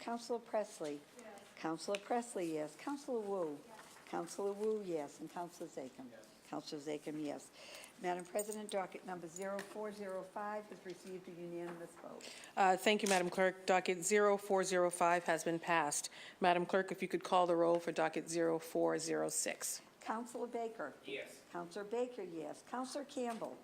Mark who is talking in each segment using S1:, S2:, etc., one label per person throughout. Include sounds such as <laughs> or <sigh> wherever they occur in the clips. S1: Counselor Presley. Yes. Counselor Presley, yes. Counselor Wu. Counselor Wu, yes. And Counselor Zachem. Counselor Zachem, yes. Madam President, docket number 0405 has received a unanimous vote.
S2: Uh, Thank you, Madam Clerk. Docket 0405 has been passed. Madam Clerk, if you could call the roll for docket 0406.
S1: Counselor Baker. Yes. Counselor Baker, yes. Counselor Campbell.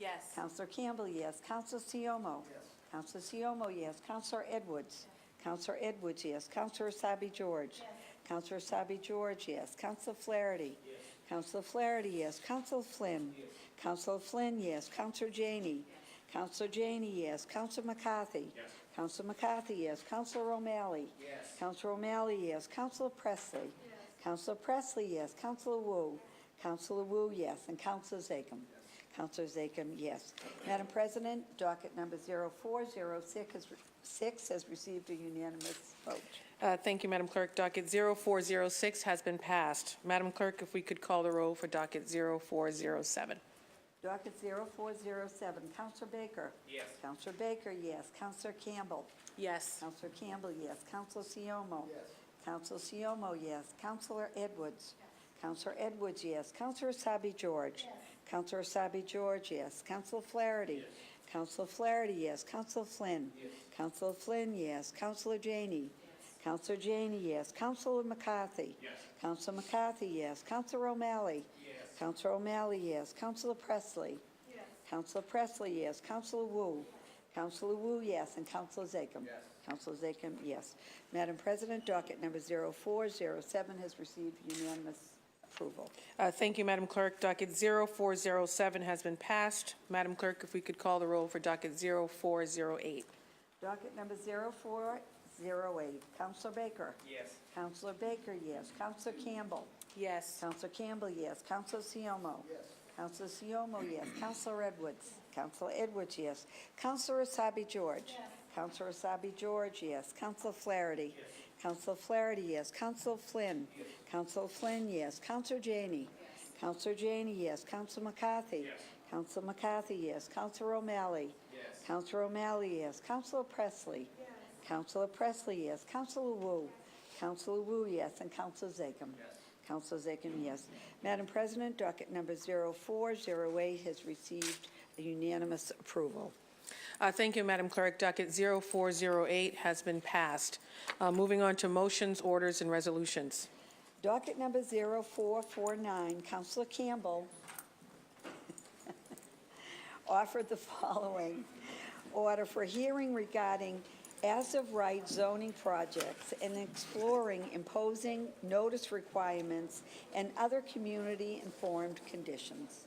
S2: Yes.
S1: Counselor Campbell, yes. Counselor Siomo. Yes. Counselor Siomo, yes. Counselor Edwards. Counselor Edwards, yes. Counselor Asabi George. Yes. Counselor Asabi George, yes. Counselor Flaherty. Yes. Counselor Flaherty, yes. Counselor Flynn. Yes. Counselor Flynn, yes. Counselor Janey. Counselor Janey, yes. Counselor McCarthy. Yes. Counselor McCarthy, yes. Counselor O'Malley. Yes. Counselor O'Malley, yes. Counselor Presley. Yes. Counselor Presley, yes. Counselor Wu. Counselor Wu, yes. And Counselor Zachem. Counselor Zachem, yes. Madam President, docket number 0406 has- six has received a unanimous vote.
S2: Uh, Thank you, Madam Clerk. Docket 0406 has been passed. Madam Clerk, if we could call the roll for docket 0407.
S1: Docket 0407, Counselor Baker. Yes. Counselor Baker, yes. Counselor Campbell.
S2: Yes.
S1: Counselor Campbell, yes. Counselor Siomo. Yes. Counselor Siomo, yes. Counselor Edwards. Counselor Edwards, yes. Counselor Asabi George. Yes. Counselor Asabi George, yes. Counselor Flaherty. Yes. Counselor Flaherty, yes. Counselor Flynn. Yes. Counselor Flynn, yes. Counselor Janey. Counselor Janey, yes. Counselor McCarthy. Yes. Counselor McCarthy, yes. Counselor O'Malley. Yes. Counselor O'Malley, yes. Counselor Presley. Yes. Counselor Presley, yes. Counselor Wu. Counselor Wu, yes, and Counselor Zachem. Yes. Counselor Zachem, yes. Madam President, docket number 0407 has received unanimous approval.
S2: Uh, Thank you, Madam Clerk. Docket 0407 has been passed. Madam Clerk, if we could call the roll for docket 0408.
S1: Docket number 0408, Counselor Baker. Yes. Counselor Baker, yes. Counselor Campbell.
S2: Yes.
S1: Counselor Campbell, yes. Counselor Siomo. Yes. Counselor Siomo, yes. Counselor Edwards. Counselor Edwards, yes. Counselor Asabi George. Yes. Counselor Asabi George, yes. Counselor Flaherty. Yes. Counselor Flaherty, yes. Counselor Flynn. Yes. Counselor Flynn, yes. Counselor Janey. Yes. Counselor Janey, yes. Counselor McCarthy. Yes. Counselor McCarthy, yes. Counselor O'Malley. Yes. Counselor O'Malley, yes. Counselor Presley. Yes. Counselor Presley, yes. Counselor Wu. Counselor Wu, yes. And Counselor Zachem. Yes. Counselor Zachem, yes. Madam President, docket number 0408 has received unanimous approval.
S2: Uh, Thank you, Madam Clerk. Docket 0408 has been passed. Uh, Moving on to motions, orders, and resolutions.
S1: Docket number 0449, Counselor Campbell <laughs> offered the following order for hearing regarding as-of-right zoning projects and exploring imposing notice requirements and other community-informed conditions.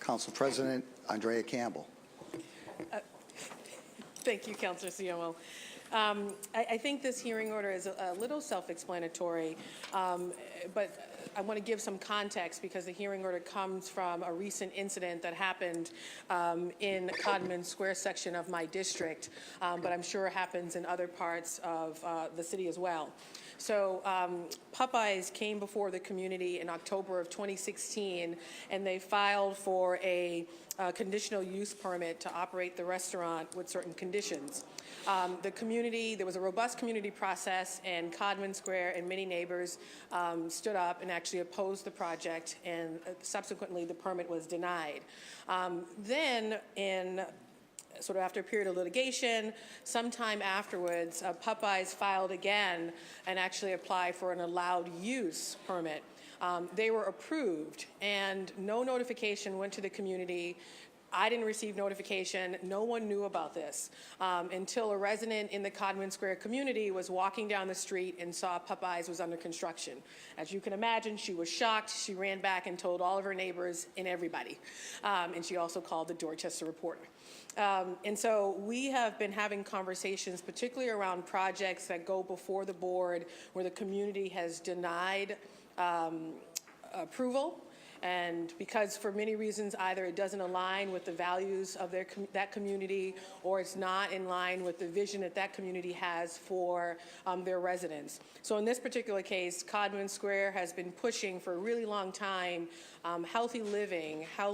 S3: Council President Andrea Campbell.
S2: Thank you, Councillor Siomo. Um, I, I think this hearing order is a a little self-explanatory, um, but I want to give some context because the hearing order comes from a recent incident that happened um, in Codman Square section of my district, um, but I'm sure happens in other parts of uh, the city as well. So um, Popeyes came before the community in October of 2016, and they filed for a uh, conditional use permit to operate the restaurant with certain conditions. Um, The community, there was a robust community process, and Codman Square and many neighbors um, stood up and actually opposed the project, and uh, subsequently, the permit was denied. Um, Then, in sort of after a period of litigation, sometime afterwards, uh, Popeyes filed again and actually applied for an allowed use permit. Um, They were approved, and no notification went to the community. I didn't receive notification. No one knew about this um, until a resident in the Codman Square community was walking down the street and saw Popeyes was under construction. As you can imagine, she was shocked. She ran back and told all of her neighbors and everybody. Um, and she also called the Dorchester Reporter. Um, and so we have been having conversations, particularly around projects that go before the board where the community has denied um, approval And because for many reasons, either it doesn't align with the values of their, com- that community, or it's not in line with the vision that that community has for um, their residents. So in this particular case, Codman Square has been pushing for a really long time um, healthy living, healthy